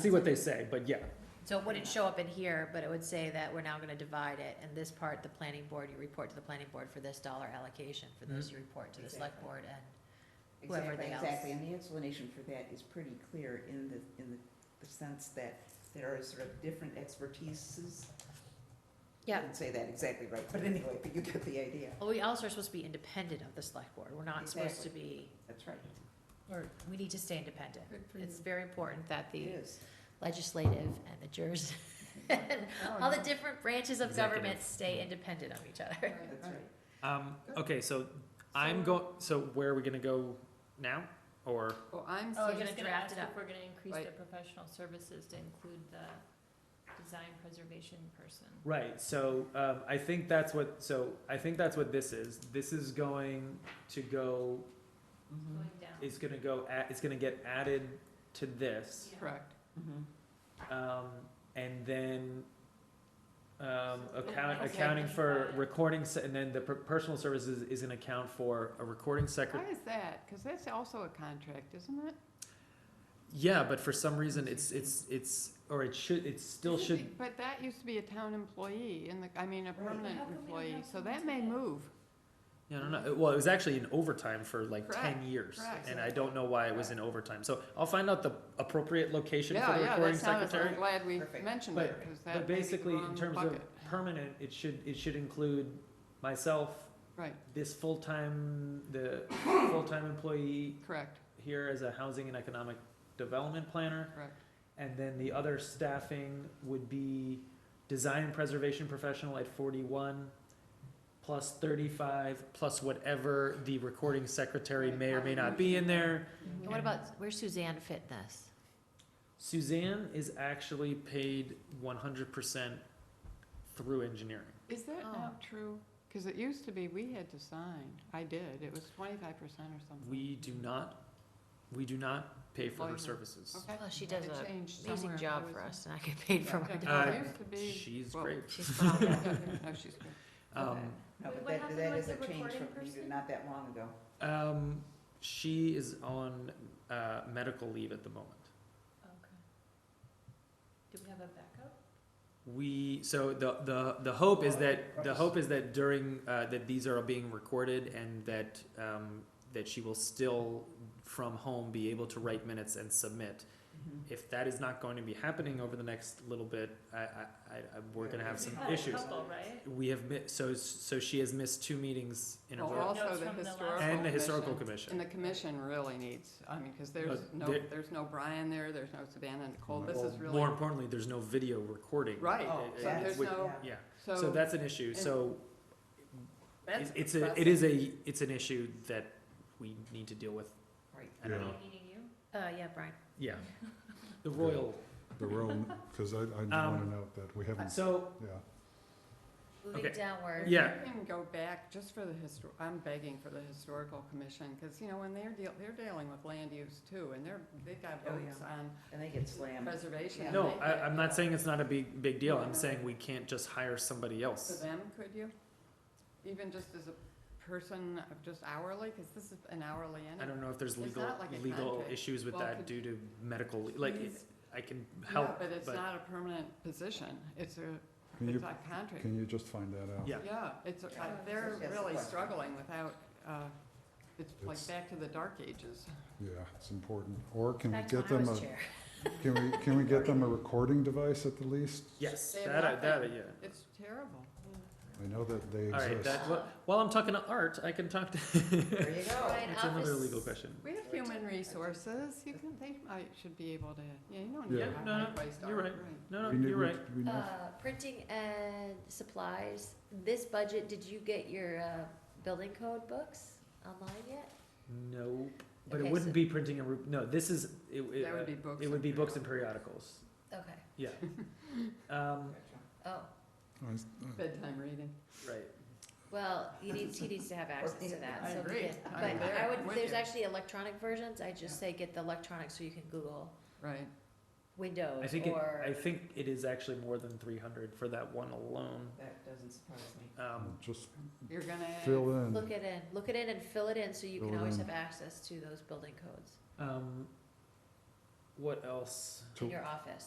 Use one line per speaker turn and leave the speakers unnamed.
see what they say, but yeah,
So it wouldn't show up in here, but it would say that we're now gonna divide it, and this part, the planning board, you report to the planning board for this dollar allocation, for those you report to the select
Exactly.
board, and, whoever
Exactly,
they else.
exactly, and the explanation for that is pretty clear in the, in the- the sense that there are sort of different expertises. I
yeah.
didn't say that exactly right, but anyway, but you get the idea,
Well, we also are supposed to be independent of the select board, we're not supposed to be,
that's right,
or, we need to stay independent.
Good for
It's
you.
very important that
it
the
is.
legislative and the juris, and all the different branches of
Executive.
government stay independent of each other.
That's right.
Um,
Good.
okay, so I'm
So-
going, so where are we gonna go now? Or,
Well, I'm
Oh,
saying.
we're gonna draft it up.
We're gonna increase
Right.
the professional services to include the design preservation person.
right, so, um, I think that's what, so I think that's what this is. This is going to go,
Mhm,
Going down.
it's gonna go, a- it's gonna get added to this.
Yeah.
Correct.
mhm.
Um, and then, um, account,
Okay.
accounting for
Identify.
recording, se- and then the per- personal services is an account for a recording
Why
secret.
is that? Because that's also a contract, isn't it?
Yeah, but for some reason, it's, it's, it's, or it should, it still
Isn't
should,
it- But that used to be a town employee and the, I mean, a
Right.
permanent
How come we don't
employee,
have
so
someone
that
to
may
that?
move.
Yeah, no, no. Well, it was actually in overtime for like ten
Correct,
years,
correct.
and I don't know why it was in overtime. So I'll find out the appropriate location for
Yeah,
the
yeah, that
recording
sounds, I'm
secretary.
glad we
Perfect.
mentioned
But-
it, because
But
that may be the
basically, in
wrong
terms of
bucket.
permanent, it should it should include myself,
Right,
this full time the full time employee
correct,
here as a housing and economic development planner,
correct.
and then the other staffing would be design and preservation professional at forty-one, plus thirty-five, plus whatever the recording secretary may or may not be in there.
Mm-hmm.
And what about, where's Suzanne fit in this?
Suzanne is actually paid one hundred percent through engineering.
Is that
Oh.
now true? Because it used to be we had to sign. I did. It was twenty-five percent or something.
We do not, we do not pay for her services.
Okay.
Well, she does
It
a
changed somewhere.
Amazing job
Where
for
was
us, and I get paid for my
it?
Uh,
dollar.
It used to be,
She's
Whoa.
great.
She's phenomenal.
no, she's good.
Um,
No,
Wait,
but
what
that,
happened
that
with
is a
the
change
recording
from, you did
person?
not that long ago.
um, she is on, uh, medical leave at the moment.
Do we have a backup?
We, so the, the, the hope is that, the hope is that during, uh, that these are being recorded and that, um, that she will still from home be able to write minutes and submit.
Mhm.
If that is not going to be happening over the next little bit, I, I, I, I- we're gonna have some
We've had a
issues.
couple, right?
We have mi- so, so she has missed two meetings in a
Well,
row.
also
Notes
the
from the last
historical.
And the historical
And
commission.
the commission really needs, I mean, because there's
But
no,
there-
there's no Brian there, there's no Savannah Nicole, this
Well,
is really,
Uh, More importantly, there's no video recording.
right,
Oh,
it-
so
that's-
there's
would-
no,
yeah.
Yeah, so
so
that's an issue,
and-
so
that's
it- it's a, it is a, it's an issue that we need to deal with.
Right.
I don't
Me,
know.
Meaning you?
Uh, yeah, Brian.
Yeah, the royal.
The Rome, because I, I want to
Um,
note that we haven't,
So,
yeah.
Moving
Okay.
downward.
Yeah.
If you can go back, just for the histor, I'm begging for the historical commission, because, you know, when they're deal, they're dealing with land use too, and they're, they've got
Oh,
votes on
And they get slammed.
preservation.
Yeah.
and
no,
they
I,
get-
I'm not saying it's not a big, big deal, I'm saying we can't just hire somebody
For
else.
them, could you? Even just as a person, of just hourly, because this is an hourly
I
anyway.
don't know if there's
It's
legal,
not like a
legal
contract.
issues with
Well,
that
could-
due to medical, like,
Please.
I can
Yeah,
help,
but it's
but,
not a permanent position, it's a,
Can
it's
you,
a contract.
can you just find that out?
yeah.
Yeah, it's, uh,
Yeah.
they're
Yes,
really
question.
struggling without, uh, it's like
It's-
back to the dark ages.
Yeah, it's important. Or can we
Back when
get
I
them
was
a,
chair.
can we, can we get them a recording device at the least?
Yes,
They have
that, I- that, I-
nothing.
yeah.
It's terrible.
I know that they
All right,
exist.
that, wh- while I'm talking to art, I can talk to, it's
There you go.
Brian,
another
office-
legal question.
We have
Or
human
it's-
resources, you can, they might, should be able to, yeah, you don't need
Yeah.
a
Yeah,
no, no,
high-priced
you're
art,
right.
right.
No,
We
no,
need-
you're
we-
right.
we need-
Uh, printing and supplies, this budget, did you get your, uh, building code books online yet?
No, but it
Okay,
wouldn't
so-
be printing and, re- no, this is, it, it,
That would be
uh,
books.
it would
and
be books and
journals.
periodicals,
Okay,
yeah. Um,
oh,
I s- uh,
Bedtime reading.
right,
well, he needs, he needs to have access to that,
I
so
agree.
he can.
I'm
But
there.
I
I'm
would,
with
there's
you.
actually electronic versions, I just
Yeah.
say get the electronic so you can Google
Right,
Windows
I think it,
or.
I think it is actually more than three hundred for that one alone,
That doesn't surprise me.
um,
Just
you're gonna.
fill in.
Look it in, look it in and fill it in so you
Fill
can
it
always
in.
Hmm.
have access to those building codes.
um, what else?
So-
in your office.